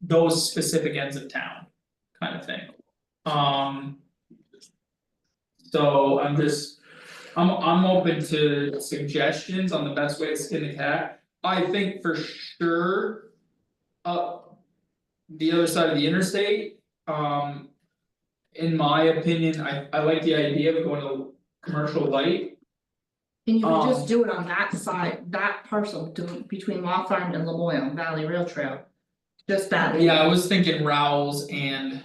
those specific ends of town, kind of thing. Um. So I'm just, I'm I'm open to suggestions on the best way to skin the cat, I think for sure. Up the other side of the interstate, um. In my opinion, I I like the idea of going to commercial light, And you would Um, just do it on that side, that parcel, do between Law Farm and Lamoille Valley Rail Trail. Just that. yeah, I was thinking Rowell's and,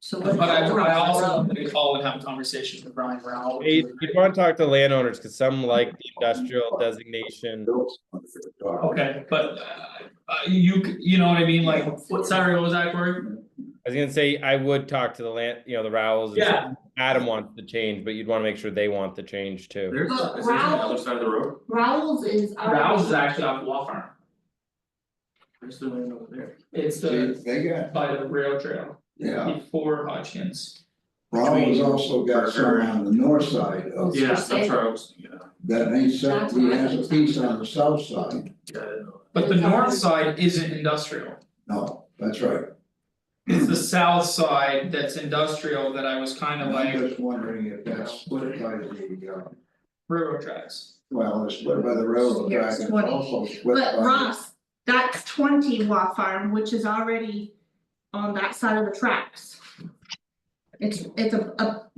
So what? but I I also wanted to call and have a conversation with Brian Rowell. Hey, You'd want to talk to landowners, because some like the industrial designation. Okay, but uh uh you c- you know what I mean, like, what sorry, what was that word? I was gonna say, I would talk to the land, you know, the Rowells. and Yeah. Adam wants the change, but you'd want to make sure they want the change too. There's, But is there on the Raoul- other side of the road? Rowell's is. our- Rouse is actually off Law Farm, Where's the land over there? it's They the they got, by the rail trail yeah, before Hodgkins. Rollins also got some on the north side Oh, of, Yeah, for that's sale. where I was, yeah, that ain't set, That's he what I has a think. piece on the south side, yeah, I know. But the north side isn't industrial, no, that's right. it's the south side that's industrial that I was kind of And I'm like just wondering if that's split by the, uh, railroad tracks. well, it's split by the railroad Yeah, track it's and 20. also split by. But Ross, that's twenty Law Farm, which is already on that side of the tracks. It's it's a a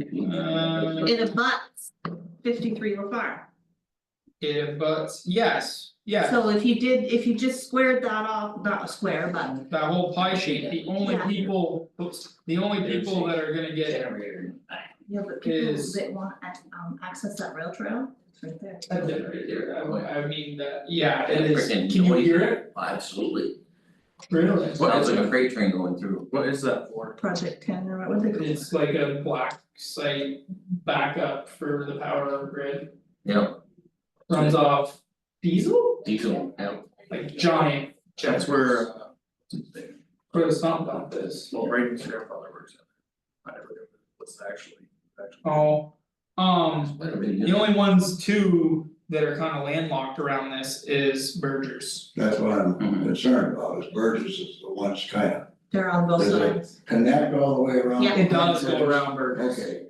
Uh, it abuts fifty three Law Farm. yeah, but yes, yeah, So if you did, if you just squared that off, not square, but that whole pie sheet, the only Yeah. people, oops, the only people that are gonna get yeah, but people Is- that want ac- um access that rail trail, it's right there. That's it right there, I would- I mean that, yeah, it is, can Freaking you noisy. hear it? Absolutely, Really? sounds like a freight train going through. What is that for? Project ten or what they call it. It's like a black site backup for the power grid, Yeah, runs off diesel, diesel, yeah. like giant. That's where, uh, For the sump dump is, well, Braden's grandfather works at. I never knew what's actually, actually. oh, um, Whatever it is. the only ones two that are kinda landlocked around this is Burgers. That's what I'm Mm-hmm. Mhm. concerned about, is Burgess is the ones kind of They're on both Is it? sides. connect all the way around. Yeah. It does go around Burgers. Okay,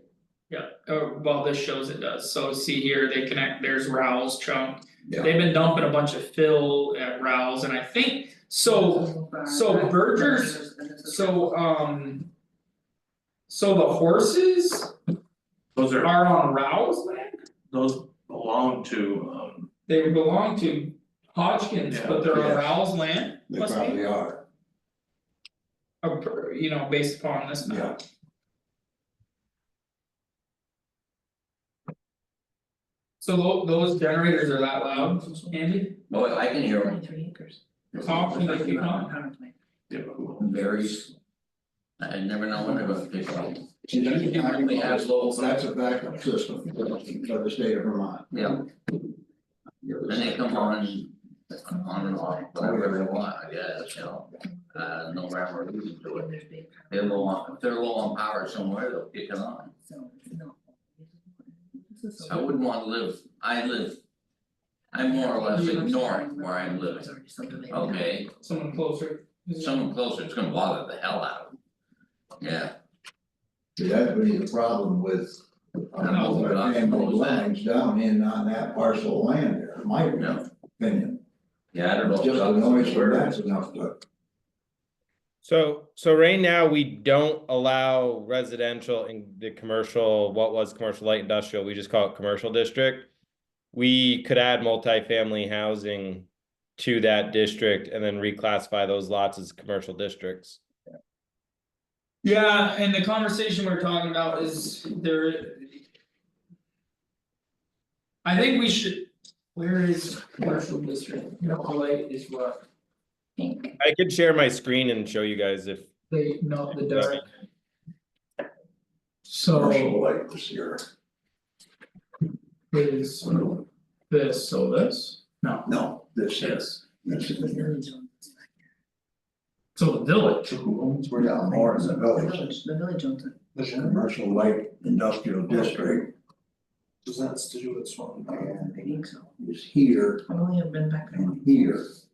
Yeah, uh, well, this shows it does, so see here, they connect, there's Rouse Chunk. Yeah. They've been dumping a bunch of fill at Rouse and I think, so so Burgers- So um. So the horses Those are, are on Rouse land, those belong to, um, they belong to Hodgkins, but they're on Yeah. Rouse land, they Must be. probably are, uh, per- you know, based upon this yeah. map. So tho- those generators are that loud, Andy? Oh, I can hear them, Twenty-three acres. Talk to the people. yeah, but who? varies. I never know when they're gonna pick up, See, that's You can really have local- That's a backup system for the state of Vermont. yeah. Then they come on, on and off, whatever they want, I guess, you know, uh, no rhyme or reason to it. They're low on, if they're low on power somewhere, they'll kick it on, I wouldn't wanna live, I live. I'm more or less ignoring where I'm living, okay? Someone closer. someone closer, it's gonna bother the hell out of them. Yeah, See, that would be the problem with. uh, I know, but I Family suppose that- lines down in on that parcel of land there, in my No. opinion, yeah, I don't know. just if the Doug's noise aware. where that's enough to. So, so right now, we don't allow residential in the commercial, what was commercial light industrial, we just call it commercial district. We could add multifamily housing to that district and then reclassify those lots as commercial districts. Yeah, and the conversation we're talking about is there. I think we should, where is commercial district, you know, light is what I could share my screen and show you guys if they know the dark. Commercial So light this year, is this, so this, no, no, this year, this, this is the year. so the village. Who owns, we're down more in the villages, The village owns it. this is commercial light industrial district Does that to do with Swan? and is here I only have been back there. and here.